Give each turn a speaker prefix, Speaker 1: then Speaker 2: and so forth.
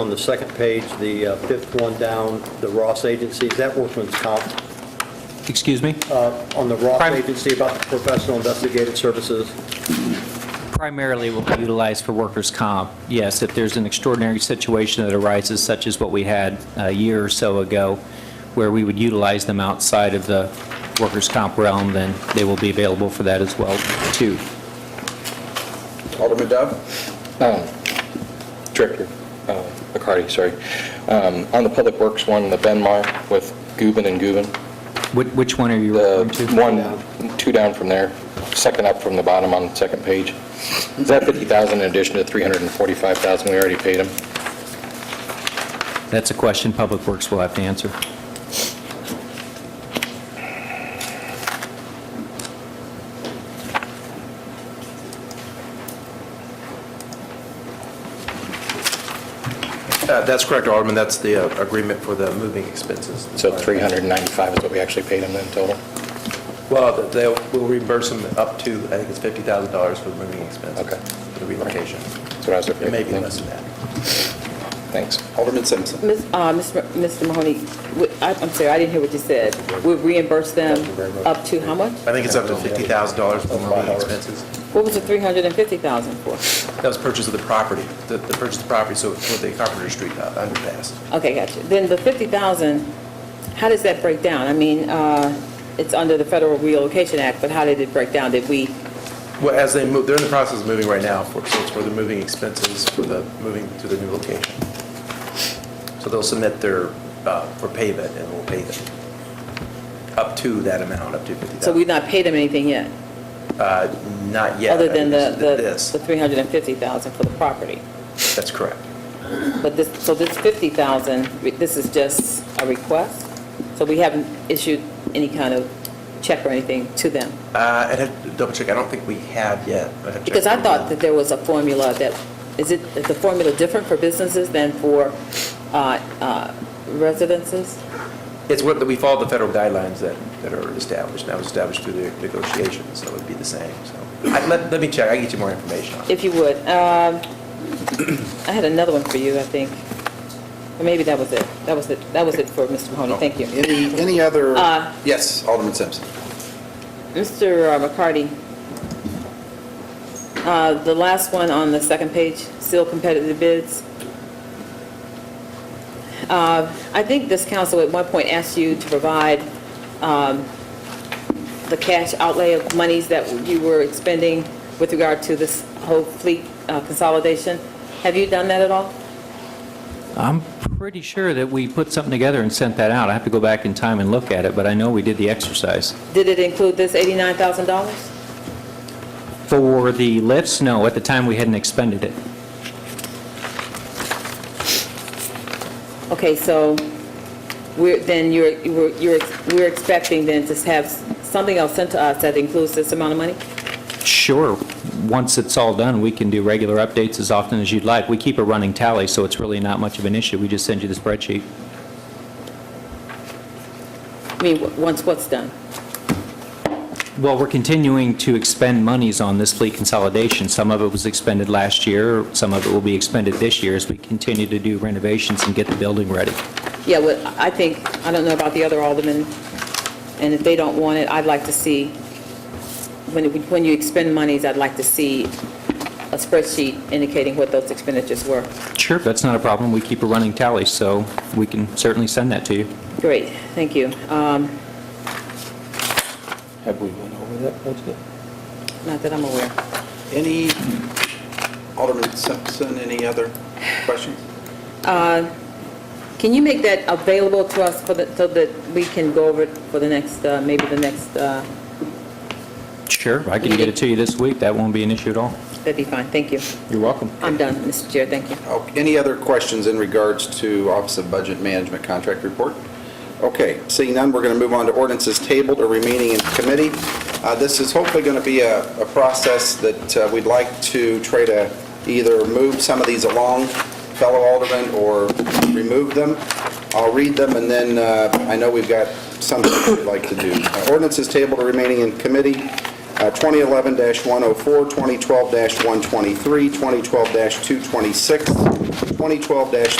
Speaker 1: On the second page, the uh, fifth one down, the Ross Agency, is that workman's comp?
Speaker 2: Excuse me?
Speaker 1: On the Ross
Speaker 2: Prime-
Speaker 1: Agency about the professional investigative services?
Speaker 2: Primarily will be utilized for workers' comp. Yes, if there's an extraordinary situation that arises, such as what we had a year or so ago, where we would utilize them outside of the workers' comp realm, then they will be available for that as well, too.
Speaker 3: Alderman Dove?
Speaker 4: Um, Director uh, McCarty, sorry. Um, On the Public Works one, the Benmar with Gubin and Gubin,
Speaker 2: Which- Which one are you
Speaker 4: the
Speaker 2: referring to?
Speaker 4: one, two down from there, second up from the bottom on the second page. Is that 50,000 in addition to 345,000 we already paid them?
Speaker 2: That's a question Public Works will have to answer.
Speaker 3: Uh, That's correct, Alderman. That's the uh, agreement for the moving expenses.
Speaker 4: So 395 is what we actually paid them then total?
Speaker 3: Well, they will reimburse them up to, I think it's $50,000 for the moving expenses.
Speaker 4: Okay.
Speaker 3: For the relocation.
Speaker 4: That's what I was looking at.
Speaker 3: It may be less than that.
Speaker 4: Thanks.
Speaker 3: Alderman Simpson?
Speaker 5: Miss- uh, Miss- Mr. Mahoney, we- I- I'm sorry, I didn't hear what you said. We reimburse them up to how much?
Speaker 3: I think it's up to $50,000 for the moving expenses.
Speaker 5: What was the 350000 for?
Speaker 3: That was purchase of the property, the the purchase of the property, so for the Carpenter Street uh, underpass.
Speaker 5: Okay, gotcha. Then the 50000 how does that break down? I mean, uh, it's under the Federal Relocation Act, but how did it break down? Did we,
Speaker 3: Well, as they move, they're in the process of moving right now, for- so it's for the moving expenses for the, moving to the new location. So they'll submit their, uh, for payment, and we'll pay them up to that amount, up to
Speaker 5: so
Speaker 3: $50,000.
Speaker 5: we've not paid them anything yet?
Speaker 3: Not yet.
Speaker 5: Other than the-
Speaker 3: This,
Speaker 5: the the 350000 for the property?
Speaker 3: that's correct.
Speaker 5: But this, so this 50,000, re- this is just a request? So we haven't issued any kind of check or anything to them?
Speaker 3: Uh, I'd have to double check, I don't think we have yet. I'd have to check.
Speaker 5: Because I thought that there was a formula that, is it, is the formula different for businesses than for uh, uh, residences?
Speaker 3: It's what, we follow the federal guidelines that, that are established, and that was established through the negotiations, so it would be the same, so. I- Let, let me check, I can get you more information on it.
Speaker 5: If you would. Um, I had another one for you, I think. Or maybe that was it. That was it, that was it for Mr. Mahoney. Oh, Thank you.
Speaker 6: Any, any other?
Speaker 5: Uh,
Speaker 6: Yes, Alderman Simpson.
Speaker 5: Mr. McCarty, uh, the last one on the second page, still competitive bids. Uh, I think this council at one point asked you to provide um, the cash outlay of monies that you were expending with regard to this whole fleet uh, consolidation. Have you done that at all?
Speaker 2: I'm pretty sure that we put something together and sent that out. I have to go back in time and look at it, but I know we did the exercise.
Speaker 5: Did it include this $89,000?
Speaker 2: For the lifts, no, at the time, we hadn't expended it.
Speaker 5: Okay, so we're, then you're, you're, you're- we're expecting then to have something else sent to us that includes this amount of money?
Speaker 2: Sure. Once it's all done, we can do regular updates as often as you'd like. We keep a running tally, so it's really not much of an issue. We just send you the spreadsheet.
Speaker 5: I mean, w- once what's done?
Speaker 2: Well, we're continuing to expend monies on this fleet consolidation. Some of it was expended last year, some of it will be expended this year as we continue to do renovations and get the building ready.
Speaker 5: Yeah, well, I think, I don't know about the other aldermen, and if they don't want it, I'd like to see, when, it- when you expend monies, I'd like to see a spreadsheet indicating what those expenditures were.
Speaker 2: Sure, that's not a problem. We keep a running tally, so we can certainly send that to you.
Speaker 5: Great, thank you. Um,
Speaker 4: Have we went over that budget?
Speaker 5: Not that I'm aware.
Speaker 6: Any, Alderman Simpson, any other questions?
Speaker 5: Can you make that available to us for the, so that we can go over it for the next, uh, maybe the next, uh,
Speaker 2: Sure, I can get it to you this week. That won't be an issue at all.
Speaker 5: that'd be fine, thank you.
Speaker 2: You're welcome.
Speaker 5: I'm done, Mr. Chair, thank you.
Speaker 6: Oh, Any other questions in regards to Office of Budget Management Contract Report? Okay, seeing none, we're going to move on to ordinances tabled or remaining in committee. Uh, This is hopefully going to be a a process that uh, we'd like to try to either move some of these along, fellow aldermen, or remove them. I'll read them, and then uh, I know we've got something we'd like to do. Uh, Ordinances tabled or remaining in committee. Uh, 2011-104, 2012-123, 2012-226, 2012-3,